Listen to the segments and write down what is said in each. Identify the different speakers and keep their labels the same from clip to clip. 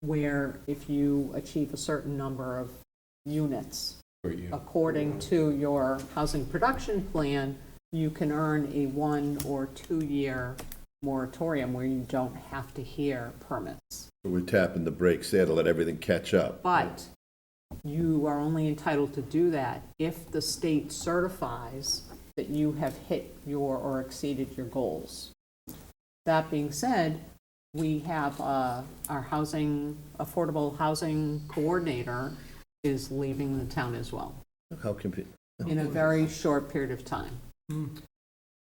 Speaker 1: where if you achieve a certain number of units,
Speaker 2: for you.
Speaker 1: according to your housing production plan, you can earn a one or two-year moratorium where you don't have to hear permits.
Speaker 3: We're tapping the brakes there to let everything catch up.
Speaker 1: But you are only entitled to do that if the state certifies that you have hit your or exceeded your goals. That being said, we have, uh, our housing, affordable housing coordinator is leaving the town as well
Speaker 3: How can, pe-
Speaker 1: in a very short period of time.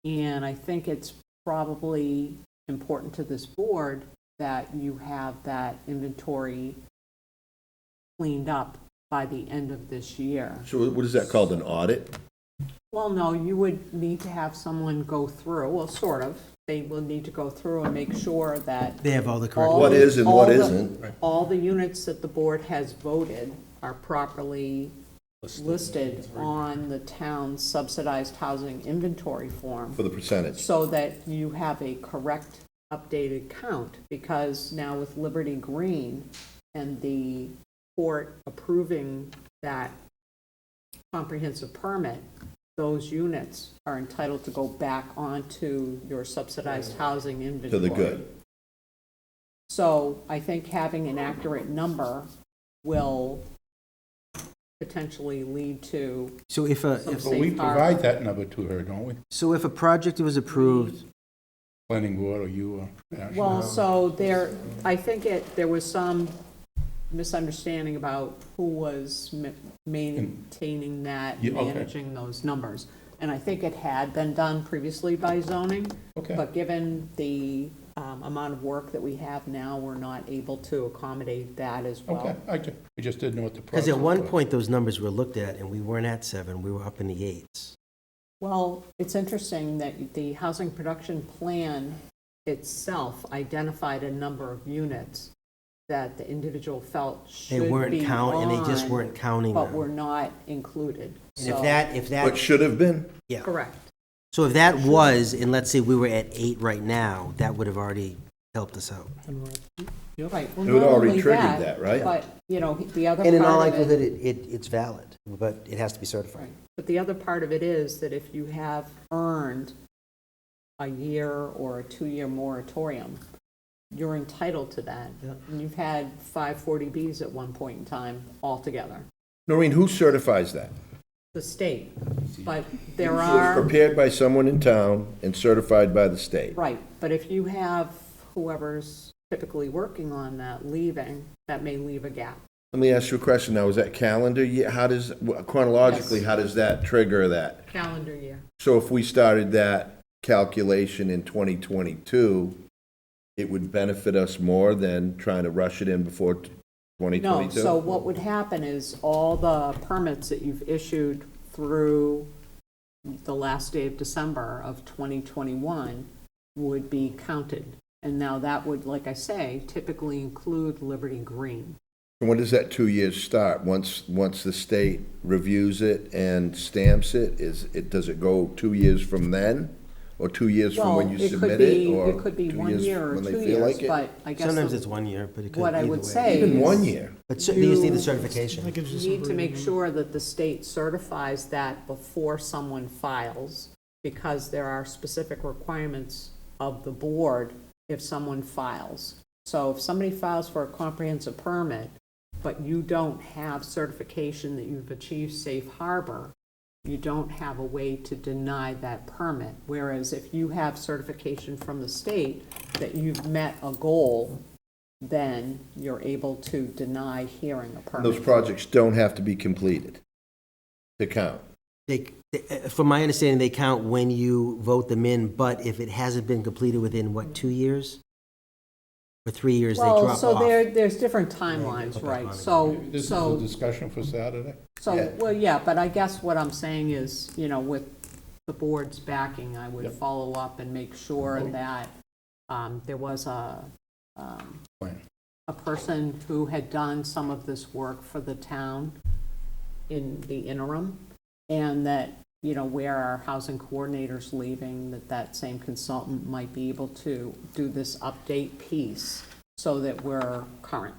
Speaker 1: And I think it's probably important to this board that you have that inventory cleaned up by the end of this year.
Speaker 3: so what is that called, an audit?
Speaker 1: Well, no, you would need to have someone go through, well, sort of. They will need to go through and make sure that
Speaker 4: They have all the correct.
Speaker 1: all.
Speaker 3: What
Speaker 1: the-
Speaker 3: is and what
Speaker 1: all the-
Speaker 3: isn't.
Speaker 1: All the units that the board has voted are properly listed on the town's subsidized housing inventory form
Speaker 3: for the percentage?
Speaker 1: so that you have a correct updated count, because now with Liberty Green and the court approving that comprehensive permit, those units are entitled to go back onto your subsidized housing inventory.
Speaker 3: To the good.
Speaker 1: So I think having an accurate number will potentially lead to
Speaker 4: So if a,
Speaker 1: some
Speaker 4: if,
Speaker 2: But we
Speaker 1: safe harbor.
Speaker 2: provide that number to her, don't we?
Speaker 4: so if a project was approved,
Speaker 2: Planning board or you or. Ashley?
Speaker 1: Well, so there, I think it, there was some misunderstanding about who was ma- maintaining that,
Speaker 2: Yeah, okay.
Speaker 1: managing those numbers. And I think it had been done previously by zoning,
Speaker 2: Okay,
Speaker 1: but given the um, amount of work that we have now, we're not able to accommodate that as
Speaker 2: okay,
Speaker 1: well.
Speaker 2: I ju- I just didn't know what the process
Speaker 4: because
Speaker 2: was.
Speaker 4: at one point, those numbers were looked at, and we weren't at seven, we were up in the eights.
Speaker 1: Well, it's interesting that the housing production plan itself identified a number of units that the individual felt should
Speaker 4: They
Speaker 1: be
Speaker 4: weren't counting, and they just
Speaker 1: on.
Speaker 4: weren't counting
Speaker 1: but were
Speaker 4: them.
Speaker 1: not included.
Speaker 4: And if
Speaker 1: So-
Speaker 4: that, if
Speaker 3: But
Speaker 4: that,
Speaker 3: should have been?
Speaker 4: yeah.
Speaker 1: Correct.
Speaker 4: So if that was, and let's say we were at eight right now, that would have already helped us out.
Speaker 1: Right. Well,
Speaker 3: It would
Speaker 1: not
Speaker 3: already
Speaker 1: only
Speaker 3: triggered that, right?
Speaker 1: But, you know, the other
Speaker 4: And in all
Speaker 1: part of
Speaker 4: likelihood,
Speaker 1: it,
Speaker 4: it, it, it's valid, but it has to be certified.
Speaker 1: right. but the other part of it is that if you have earned a year or a two-year moratorium, you're entitled to that.
Speaker 4: Yeah.
Speaker 1: And you've had five 40Bs at one point in time altogether,
Speaker 3: Noreen, who certifies that?
Speaker 1: the state. But there
Speaker 3: It's
Speaker 1: are.
Speaker 3: Prepared by someone in town and certified by the state.
Speaker 1: Right, but if you have whoever's typically working on that leaving, that may leave a gap.
Speaker 3: Let me ask you a question now, is that calendar year, how does, chronologically,
Speaker 1: Yes.
Speaker 3: how does that trigger that?
Speaker 1: Calendar year.
Speaker 3: So if we started that calculation in 2022, it would benefit us more than trying to rush it in before t-
Speaker 1: No,
Speaker 3: 2022?
Speaker 1: so what would happen is all the permits that you've issued through the last day of December of 2021 would be counted. And now that would, like I say, typically include Liberty Green.
Speaker 3: And When does that two years start? Once, once the state reviews it and stamps it, is, it, does it go two years from then? Or two years from when
Speaker 1: Well,
Speaker 3: you
Speaker 1: could
Speaker 3: submit
Speaker 1: be-
Speaker 3: it? Or
Speaker 1: It could be
Speaker 3: two
Speaker 1: one
Speaker 3: years
Speaker 1: year or
Speaker 3: when they
Speaker 1: two
Speaker 3: feel
Speaker 1: years,
Speaker 3: like it?
Speaker 1: but I guess
Speaker 4: Sometimes
Speaker 1: the-
Speaker 4: it's one year, but it could
Speaker 1: what I
Speaker 4: either
Speaker 1: would
Speaker 4: way.
Speaker 1: say
Speaker 3: Even one
Speaker 1: is-
Speaker 3: year?
Speaker 4: But cer- they just need
Speaker 1: You-
Speaker 4: the certification.
Speaker 1: need to make sure that the state certifies that before someone files, because there are specific requirements of the board if someone files. So if somebody files for a comprehensive permit, but you don't have certification that you've achieved safe harbor, you don't have a way to deny that permit. Whereas if you have certification from the state that you've met a goal, then you're able to deny hearing a permit.
Speaker 3: Those projects don't have to be completed to count.
Speaker 4: They, they- uh, from my understanding, they count when you vote them in, but if it hasn't been completed within, what, two years? Or three years, they drop
Speaker 1: Well,
Speaker 4: off.
Speaker 1: so there, there's different timelines,
Speaker 4: Okay.
Speaker 1: right, so,
Speaker 2: This is a
Speaker 1: so,
Speaker 2: discussion for Saturday.
Speaker 1: so,
Speaker 3: Yeah.
Speaker 1: well, yeah, but I guess what I'm saying is, you know, with the board's backing, I would follow up and make sure that, um, there was a, um,
Speaker 2: Plan.
Speaker 1: a person who had done some of this work for the town in the interim, and that, you know, where our housing coordinator's leaving, that that same consultant might be able to do this update piece so that we're current.